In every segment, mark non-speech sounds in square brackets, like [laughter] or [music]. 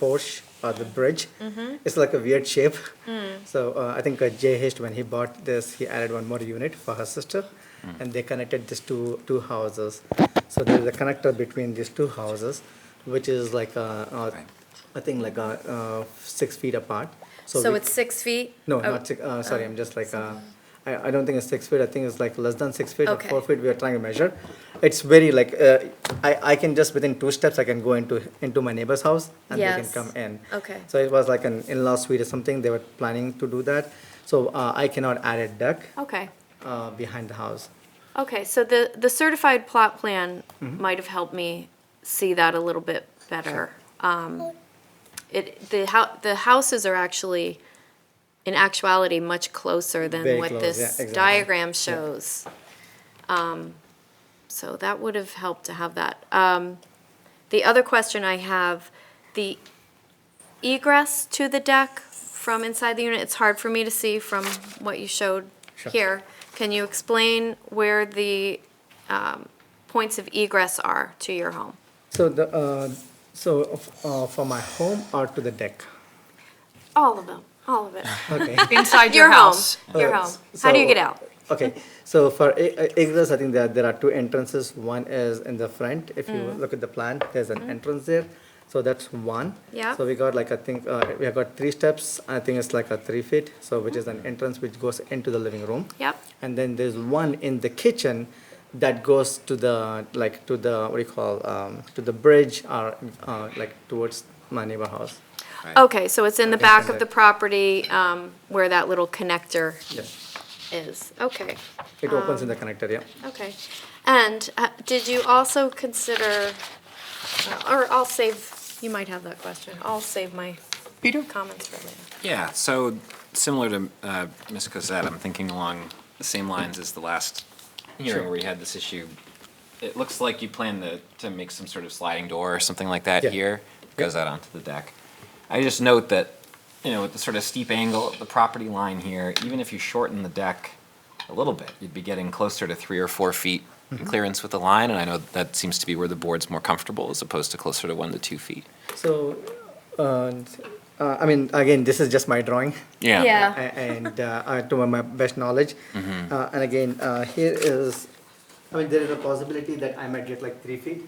Porsche or the bridge. Mm-hmm. It's like a weird shape. Hmm. So uh, I think uh, Jay Hist, when he bought this, he added one more unit for her sister, and they connected these two two houses. So there's a connector between these two houses, which is like uh uh, I think like uh uh, six feet apart. So we- it's six feet? no, Oh, not six. Uh, sorry, I'm just like. Uh, I, I don't think it's six feet. I think it's like less than six feet Okay. or four feet. We are trying to measure. It's very like uh, I I can just within two steps I can go into into my neighbor's house and they Yes. can come in. Okay. So it was like an in-law suite or something. They were planning to do that. So uh, I cannot add a deck Okay, uh, behind the house. okay, so the, the certified plot plan Mm-hmm. might have helped me see that a little bit better. Um, It, the hou- the houses are actually, in actuality, much closer than Very what close, yeah, this exactly. diagram Yeah. shows. Um, So that would have helped to have that. Um, The other question I have, the egress to the deck from inside the unit, it's hard for me to see from what you showed Sure. here. Can you explain where the um, points of egress are to your home? So the uh, so of- uh, for my home or to the deck. All of them, all [laughs] of it. Okay. Inside your Your home, house. your Uh, home. s- How do you so- get out? Okay, so for e- e- egress, I think there, there are two entrances. One is in the front. If you Mm-hmm. look at the plan, there's an entrance there. So that's one. Yeah. So we got like, I think, uh, we have got three steps. I think it's like a three feet. So which is Mm-hmm. an entrance which goes into the living room. Yep. And then there's one in the kitchen that goes to the, like, to the, what do you call, um, to the bridge or, uh, like towards my neighbor house. Okay, so it's in the Okay, back so of the that- property um, where that little connector Yes. is. Okay, It opens in Um, the connector, yeah. okay. And uh, did you also consider, uh, or I'll save, you might have that question. I'll save my Peter? comments for later. Yeah, so similar to uh, Ms. Cosette, I'm thinking along the same lines as the last hearing where we had this issue. It looks like you plan to, to make some sort of sliding door or something like that Yeah. here, goes out onto the deck. I just note that, you know, with the sort of steep angle of the property line here, even if you shorten the deck a little bit, you'd be getting closer to three or four feet clearance with the line, and I know that seems to be where the board's more comfortable as opposed to closer to one to two feet. So, uh, uh, I mean, again, this is just my drawing. Yeah. A- and uh, uh, to my, my best knowledge. Mm-hmm. Uh, and again, uh, here is, I mean, there is a possibility that I might get like three feet.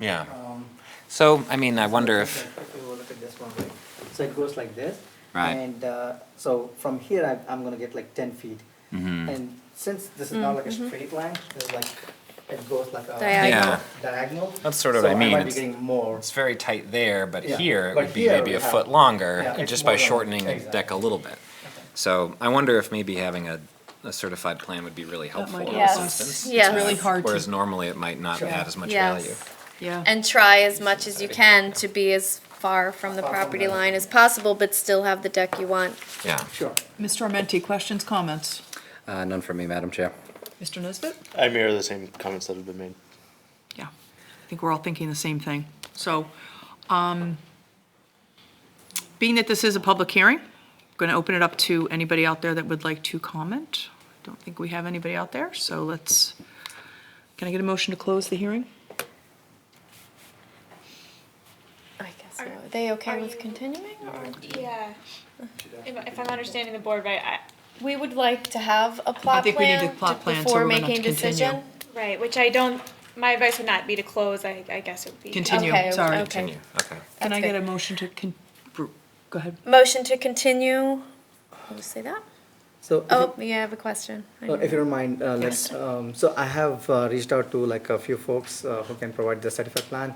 Yeah. Um, So, I mean, I wonder if, If you look at this one, right? So it goes like this. Right. And uh, so from here, I, I'm going to get like 10 feet. Mm-hmm. And since this is not like a straight line, it's like, it goes like a Mm-hmm. Diagonal. Yeah. diagonal. That's sort of what so I mean. might be It's- getting more. it's very tight there, but Yeah, here it but would be here maybe we a have- foot longer, Yeah, and it's just more by longer. shortening the Exactly. deck a little bit. So I wonder if maybe having a, a certified plan would be really helpful in this Yes. instance. Yes. uh, It's really hard to- Whereas normally it might not add as much Yes. value. Yeah. And try as much as you can to be as far from the Far from property the- line as possible, but still have the deck you want. Yeah. Sure. Mr. Armenti, questions, comments? Uh, None for me, Madam Chair. Mr. Nesbit? I mirror the same comments that have been made. Yeah. I think we're all thinking the same thing. So, um, being that this is a public hearing, I'm going to open it up to anybody out there that would like to comment. Don't think we have anybody out there, so let's, can I get a motion to close the hearing? I guess, so. are they okay are with you- continuing? or- Yeah. If, if I'm understanding the board right, I, We would like to have a plot think we need plan to plot to- plan so before we're gonna have making to continue. decision. right, which I don't, my advice would not be to close, I, I guess it would be. Continue, Okay, sorry. okay. Continue, okay. Can That's I get good. a motion to, con- br- go ahead. Motion to continue, I'll just say that. So if you- Oh, yeah, I have a question. I Uh, know. If you don't mind, uh, like, Yes. um, so I have uh, reached out to like a few folks uh, who can provide the certified plan.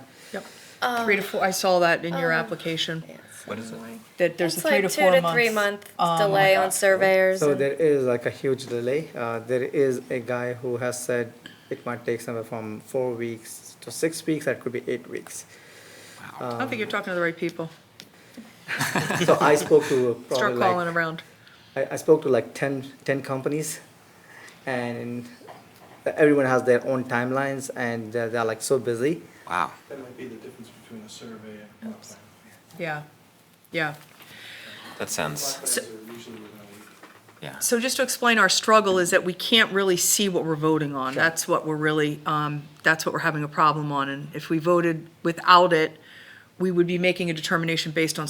Um, Three to four, I saw that in your application, What is it? that there's a It's three like to two four months. to three month um, delay on surveyors. So and- there is like a huge delay. Uh, There is a guy who has said it might take somewhere from four weeks to six weeks, that could be eight weeks. I don't think you're talking to the right people. So I spoke to Start probably calling like, around. I, I spoke to like 10, 10 companies and everyone has their own timelines and they're they're, like so busy. Wow. That might be the difference between a survey and a plan. Yeah, yeah. That sounds, Plot plans are usually within a week. yeah. So just to explain, our struggle is that we can't really see what we're voting on. That's what we're really, um, that's what we're having a problem on. And if we voted without it, we would be making a determination based on